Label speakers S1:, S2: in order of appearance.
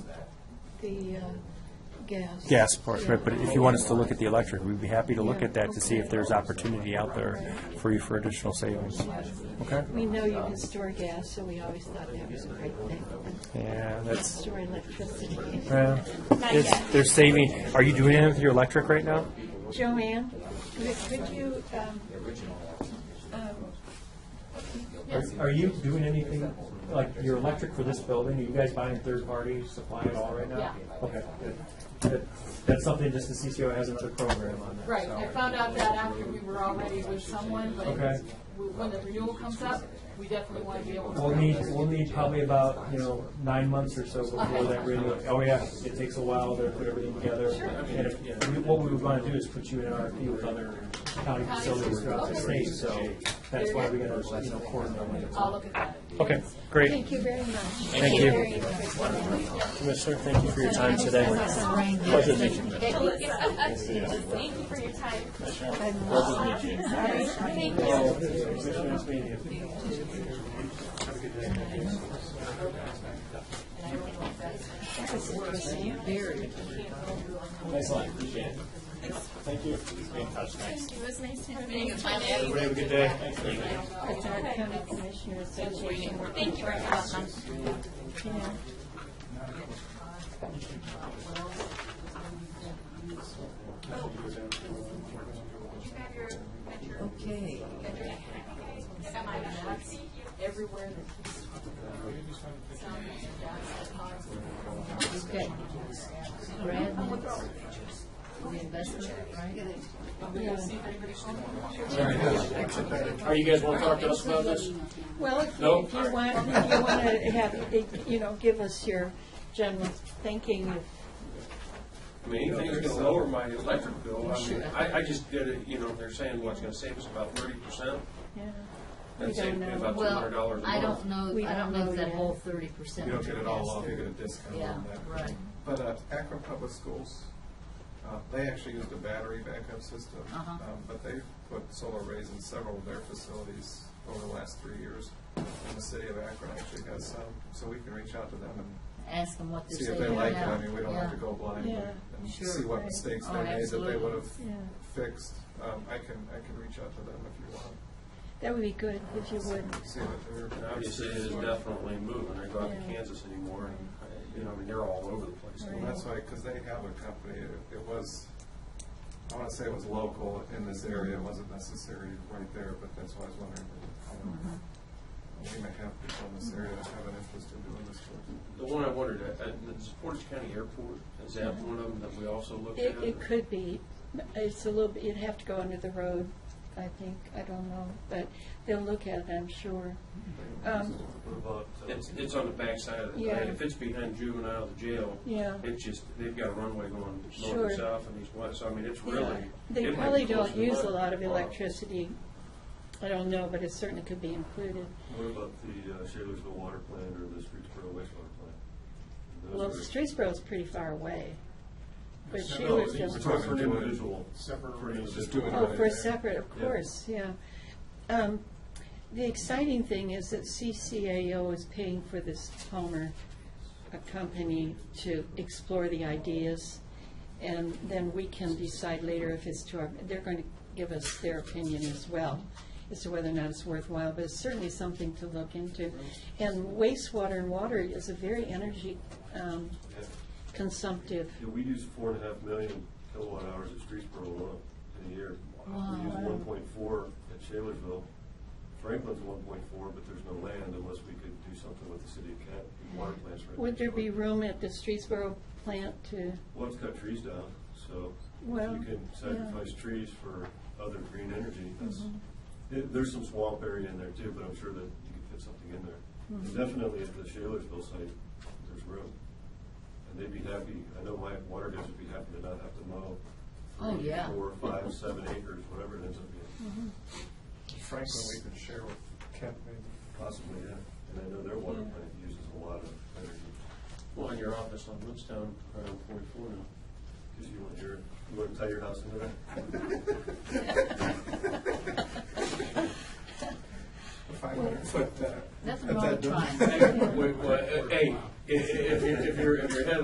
S1: the uh, gas.
S2: gas part, right, but if you want us to look at the electric, we'd be happy to look at that to see if there's opportunity out there for you for additional savings. Okay?
S1: We know you can store gas, so we always thought that was a great thing.
S2: Yeah, that's,
S1: Store electricity.
S2: yeah. It's, they're saving, are you doing anything with your electric right now?
S1: Joanne, could could you, um,
S2: Are- Are you doing anything, like your electric for this building, are you guys buying third-party supply at all right now?
S3: Yeah.
S2: Okay, good. That- That's something just the CCO has in their program on that.
S3: Right,
S2: so-
S3: I found out that after we were already with someone, but
S2: Okay.
S3: w- when the renewal comes up, we definitely want to be able to.
S2: We'll need, we'll need probably about, you know, nine months or so before that renewal. Oh, yeah, it takes a while to put everything together. And if, we- what we would want to do is put you in RFP with other county facilities throughout the state, so that's why we gotta, you know, coordinate.
S3: I'll look at that.
S2: Okay, great.
S1: thank you very much.
S2: Thank you.
S1: Very interesting.
S2: Commissioner, thank you for your time today.
S3: Thank you for your time.
S4: It was nice to have you. Thank
S2: Have a good day.
S1: It's our county commissioner association.
S4: you very much.
S1: Yeah. Okay.
S3: Everywhere.
S1: Okay. Brad minutes, the investment, right?
S5: Are you guys want to talk to us about this?
S1: Well, if
S5: No?
S1: you if you want, if you want to have, you know, give us your general thinking of
S5: I mean, anything's gonna lower my electric bill. I mean, I, I just did it, you know, they're saying what's gonna save us about thirty percent.
S1: Yeah. We
S5: That saved me
S1: don't know.
S5: about two hundred
S6: Well,
S5: dollars a
S6: I
S5: month.
S6: don't know,
S1: We
S6: I
S1: don't
S6: don't know
S1: know
S6: if that
S1: yet.
S6: whole thirty percent.
S7: You don't get it all off, you get a discount
S6: Yeah,
S7: on that.
S6: right.
S7: But uh, Akron Public Schools, uh, they actually used a battery backup system,
S6: Uh-huh.
S7: um, but they've put solar arrays in several of their facilities over the last three years. And the city of Akron actually has some, so we can reach out to them and
S6: Ask them what they're
S7: see
S6: saying.
S7: if they like it.
S6: now.
S7: I mean, we don't have to
S6: Yeah.
S7: go blind and and see what mistakes
S6: Oh,
S7: they made that they
S6: absolutely.
S7: would have
S1: Yeah.
S7: fixed. Um, I can, I can reach out to them if you want,
S1: That would be good, if you would.
S7: see what they're.
S5: And obviously, it is definitely moving. I go out to Kansas anymore, and, I- you know, I mean, they're all over the place.
S7: Well, that's why, because they have a company, it- it was, I want to say it was local in this area, it wasn't necessarily right there, but that's why I was wondering. um, We may have people in this area that have an interest in doing this work.
S5: The one I wondered, uh, at, at the Portage County Airport, is that one of them that we also looked
S1: Mm-hmm.
S5: at?
S1: It, it could be, it's a little, bit. you'd have to go under the road, I think, I don't know, but they'll look at it, I'm sure. Um,
S8: uh,
S5: It's, it's on the backside of the,
S1: Yeah.
S5: if it's behind juvenile, the jail,
S1: Yeah.
S5: it's just, they've got a runway going north
S1: Sure.
S5: and south and east, west, so I mean, it's
S1: yeah.
S5: really. it
S1: They
S5: might
S1: probably
S5: be close
S1: don't
S5: to Oh.
S1: use a
S5: what-
S1: lot of
S8: Uh,
S5: wow.
S1: electricity, I don't know, but it certainly could be included.
S8: What about the uh, Shaler'sville water plant or the Streetsboro wastewater plant? Those
S1: Well,
S8: are-
S1: Streetsboro's pretty far away, but she
S8: No,
S1: was
S8: it's
S1: just.
S8: for an individual.
S7: Just doing it.
S1: Oh, for a
S7: right.
S1: separate, of
S8: Yeah.
S1: course, yeah. Um, The exciting thing is that CCAO is paying for this Palmer uh, company to explore the ideas, and then we can decide later if it's to our, they're going to give us their opinion as well as to whether or not it's worthwhile, but it's certainly something to look into. And wastewater and water is a very energy um, consumptive.
S8: Yeah, we use four and a half million kilowatt hours at Streetsboro alone in a year. We use one point four at Shaler'sville. Franklin's one point four, but there's no land unless we could do something with the city of Kent, and water plants right
S1: Would there
S8: next
S1: be
S8: door.
S1: room at the Streetsboro plant to?
S8: Well, it's cut trees down, so if
S1: Well,
S8: you can
S1: yeah.
S8: sacrifice trees for other green energy, that's,
S1: Mm-hmm.
S8: there- there's some swamp area in there too, but I'm sure that you could fit something in there.
S1: Mm-hmm.
S8: And Definitely at the Shaler'sville site, there's room. And they'd be happy, I know my water guys would be happy to not have to mow.
S6: Oh,
S8: three,
S6: yeah.
S8: Four, five, seven acres, whatever it ends up
S1: Mm-hmm.
S8: being,
S7: Franklin, we could share with Kent maybe.
S8: possibly, yeah. And I know their water plant uses a lot of energy,
S5: Well, in your office on Woodstown, around forty-four now.
S8: because you want your, you want to tie your house into that.
S7: A five hundred foot. uh,
S6: Nothing
S7: at
S6: wrong with
S7: that door.
S6: trying.
S5: Hey, wait, wait, hey, if, if, if you're, if you're head